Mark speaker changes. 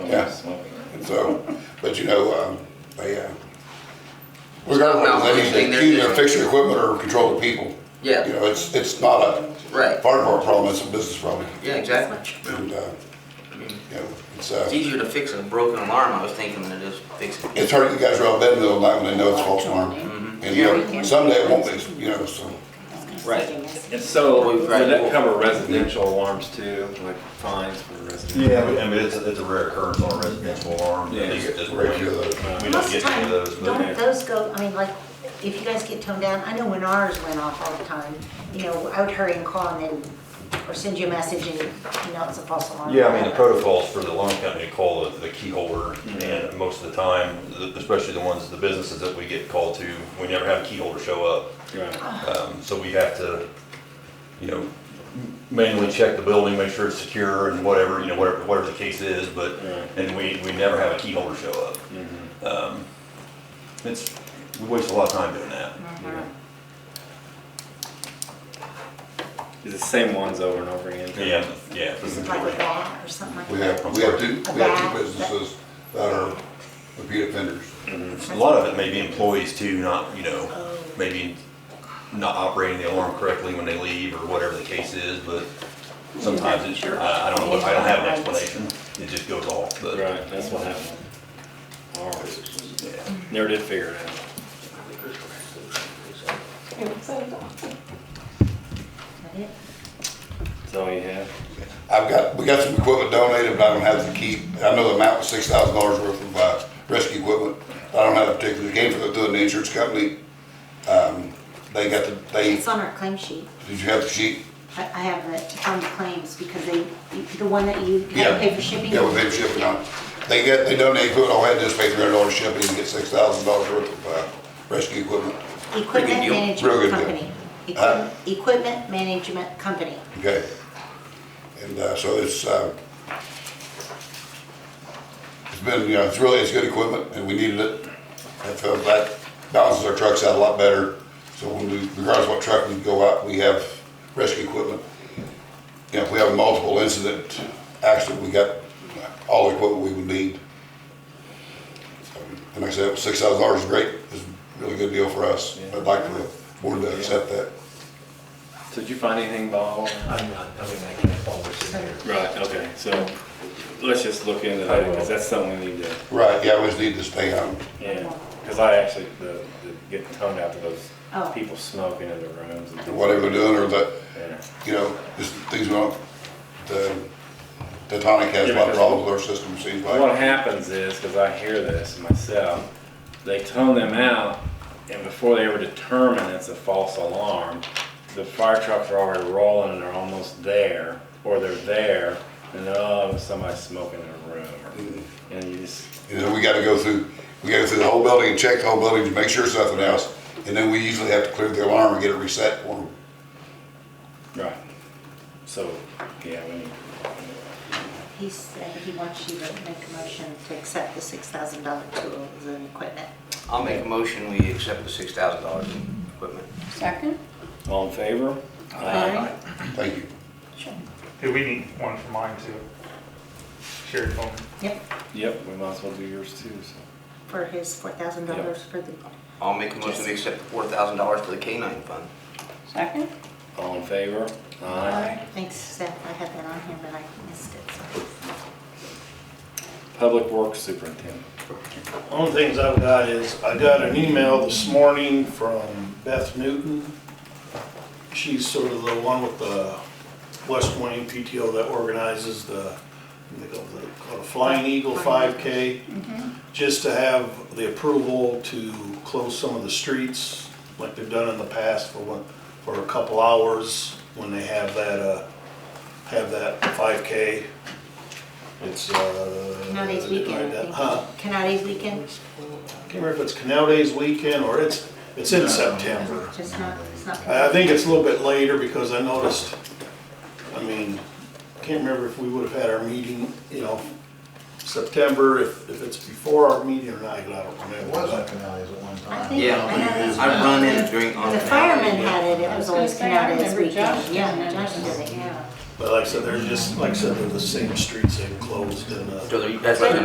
Speaker 1: Yeah. And so, but you know, um, they, uh, regardless of whether they
Speaker 2: malfunctioning, they're
Speaker 1: accuse or
Speaker 2: different.
Speaker 1: fix your equipment or control the people.
Speaker 2: Yeah.
Speaker 1: You know, it's, it's not a
Speaker 2: Right.
Speaker 1: part of our problem, it's a business problem.
Speaker 2: Yeah, exactly.
Speaker 1: And, uh, you know, it's,
Speaker 2: It's
Speaker 1: uh,
Speaker 2: easier to fix a broken alarm, I was thinking, than it is fix it.
Speaker 1: it's hard, you guys are out bed in the middle of the night when they know it's false alarm. And, you know, someday it won't be, you know, so,
Speaker 2: Right.
Speaker 3: And so,
Speaker 2: We've
Speaker 3: would
Speaker 2: got-
Speaker 3: that cover residential alarms too, like fines for residential?
Speaker 4: Yeah, but I mean, it's, it's a rare occurrence on a residential alarm.
Speaker 3: Yeah.
Speaker 4: At least at this
Speaker 1: Rare,
Speaker 4: point.
Speaker 1: yeah.
Speaker 4: We don't
Speaker 5: Most of
Speaker 4: get
Speaker 5: the
Speaker 4: any
Speaker 5: time,
Speaker 4: of those. but-
Speaker 5: don't those go, I mean, like, if you guys get toned down, I know when ours went off all the time, you know, I would hurry and call and then, or send you a message and, you know, it's a false alarm.
Speaker 4: Yeah, I mean, the protocols for the alarm company to call the, the key holder, and most of the time, the- especially the ones, the businesses that we get called to, we never have a key holder show up.
Speaker 3: Right.
Speaker 4: Um, so we have to, you know, manually check the building, make sure it's secure and whatever, you know, whatever, whatever the case is, but,
Speaker 3: Right.
Speaker 4: and we, we never have a key holder show up.
Speaker 3: Mm-hmm.
Speaker 4: Um, It's, we waste a lot of time doing that.
Speaker 5: Mm-hmm.
Speaker 3: Yeah. It's the same ones over and over again.
Speaker 4: Yeah, yeah.
Speaker 5: Is it like a bat or something like that?
Speaker 1: we have, we have two, we have two businesses that are repeat offenders.
Speaker 4: A lot of it may be employees too, not, you
Speaker 5: Oh,
Speaker 4: know, maybe not operating the alarm correctly when they leave or whatever the case is, but sometimes it's, I, I don't know, I don't have an explanation. It just goes off, but, yeah.
Speaker 3: Right, that's what happened. Ours, never did figure it out.
Speaker 5: Is that it?
Speaker 3: That's all you have?
Speaker 1: I've got, we got some equipment donated, but I don't have the key. I know the amount was six thousand dollars worth of, uh, rescue equipment. I don't have a particular, it came from, through the insurance company. Um, they got the, they,
Speaker 5: It's on our claim sheet.
Speaker 1: did you have the sheet?
Speaker 5: I, I have it, it's on the claims because they, the one that you had
Speaker 1: Yeah.
Speaker 5: to pay for shipping.
Speaker 1: Yeah, we paid for shipping on. it. They got, they donated equipment, all I had to do was pay three hundred dollars shipping and get six thousand dollars worth of, uh, rescue equipment.
Speaker 5: Equipment
Speaker 2: deal.
Speaker 1: Real good deal.
Speaker 5: management company.
Speaker 1: Huh?
Speaker 5: Equip- Equipment management company.
Speaker 1: Okay. And uh, so it's, uh, it's been, you know, it's really, it's good equipment and we needed it. And so that balances our trucks out a lot better. So when we, regardless of what truck we go out, we have rescue equipment. You know, if we have a multiple incident accident, we got all the equipment we would need. And like I said, six thousand dollars is great. It's a really good deal for us. I'd like for the board to accept that.
Speaker 3: So Did you find anything, Bob?
Speaker 6: I'm not, I mean, I can't follow what's in there.
Speaker 3: Right, okay, so, let's just look into that, because that's something we need to,
Speaker 1: Right, yeah, we just need to stay on.
Speaker 3: yeah. Because I actually, the, the, getting toned out to those
Speaker 5: Oh.
Speaker 3: people smoking in their rooms and.
Speaker 1: whatever we're doing, or the,
Speaker 3: Yeah.
Speaker 1: you know, just things we don't, the, the tonic has a lot of problems with our system, it seems
Speaker 3: What
Speaker 1: like.
Speaker 3: happens is, because I hear this myself, they tone them out, and before they ever determine it's a false alarm, the fire trucks are already rolling and they're almost there, or they're there, and oh, somebody's smoking in a room, or, and you just,
Speaker 1: And then we gotta go through, we gotta go through the whole building and check the whole building to make sure it's nothing else. And then we usually have to clear the alarm and get it reset for them.
Speaker 3: right. So, yeah, we need.
Speaker 5: He said he wants you to make a motion to accept the six thousand dollar tools and equipment.
Speaker 2: I'll make a motion, we accept the six thousand dollars in equipment.
Speaker 7: Second?
Speaker 3: All in favor?
Speaker 5: Aye.
Speaker 1: Thank you.
Speaker 7: Sure.
Speaker 8: Hey, we need one for mine too. Shared phone.
Speaker 5: Yep,
Speaker 3: Yep, we might as well do yours too, so.
Speaker 5: for his four thousand dollars for the,
Speaker 2: I'll make a motion, we accept the four thousand dollars for the canine fund.
Speaker 7: Second?
Speaker 3: All in favor? Aye.
Speaker 5: thanks Seth, I had that on here, but I missed it, so.
Speaker 3: Public Works Superintendent.
Speaker 9: One of the things I've got is, I got an email this morning from Beth Newton. She's sort of the one with the West Wayne PTO that organizes the, they call it call it Flying Eagle 5K,
Speaker 5: Mm-hmm.
Speaker 9: just to have the approval to close some of the streets, like they've done in the past for one, for a couple hours, when they have that, uh, have that 5K. It's, uh.
Speaker 5: Canada's weekend, I think.
Speaker 9: Huh?
Speaker 5: Canada's weekend,
Speaker 9: can't remember if it's Canal Days weekend or it's, it's in September.
Speaker 5: just not, it's not.
Speaker 9: I I think it's a little bit later because I noticed, I mean, can't remember if we would have had our meeting, you know, September, if, if it's before our meeting or not, I don't remember.
Speaker 6: It was on canales at one
Speaker 5: I
Speaker 6: time.
Speaker 5: think
Speaker 2: Yeah.
Speaker 5: Canada's-
Speaker 2: I run in during.
Speaker 5: When the firemen had it, it was
Speaker 7: I was gonna
Speaker 5: always
Speaker 7: say, I
Speaker 5: Canada's
Speaker 7: remember Josh
Speaker 5: weekend,
Speaker 7: doing
Speaker 5: yeah,
Speaker 7: it.
Speaker 5: Josh did it, yeah.
Speaker 9: But like I said, they're just, like I said, they're the same streets they closed and, uh.
Speaker 2: So that's like